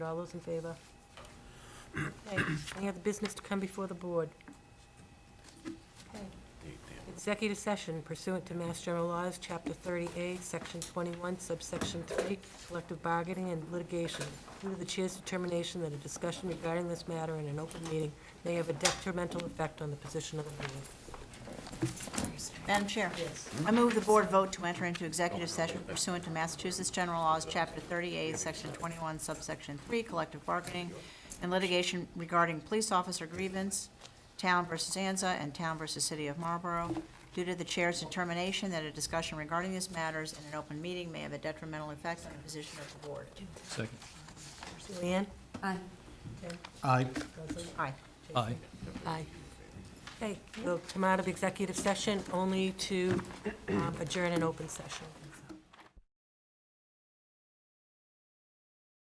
All those in favor? Okay, Any other business to come before the board? Okay. Executive session pursuant to Mass General Laws, Chapter 30A, Section 21, Subsection 3, collective bargaining and litigation. Due to the chair's determination that a discussion regarding this matter in an open meeting may have a detrimental effect on the position of the board. Madam Chair. Yes. I move the board vote to enter into executive session pursuant to Massachusetts General Laws, Chapter 38, Section 21, Subsection 3, collective bargaining and litigation regarding police officer grievance, town versus Anza, and town versus city of Marlborough, due to the chair's determination that a discussion regarding these matters in an open meeting may have a detrimental effect on the position of the board. Second. Leanne? Aye. Aye. Aye. Aye. Okay, we'll come out of executive session only to um, adjourn an open session.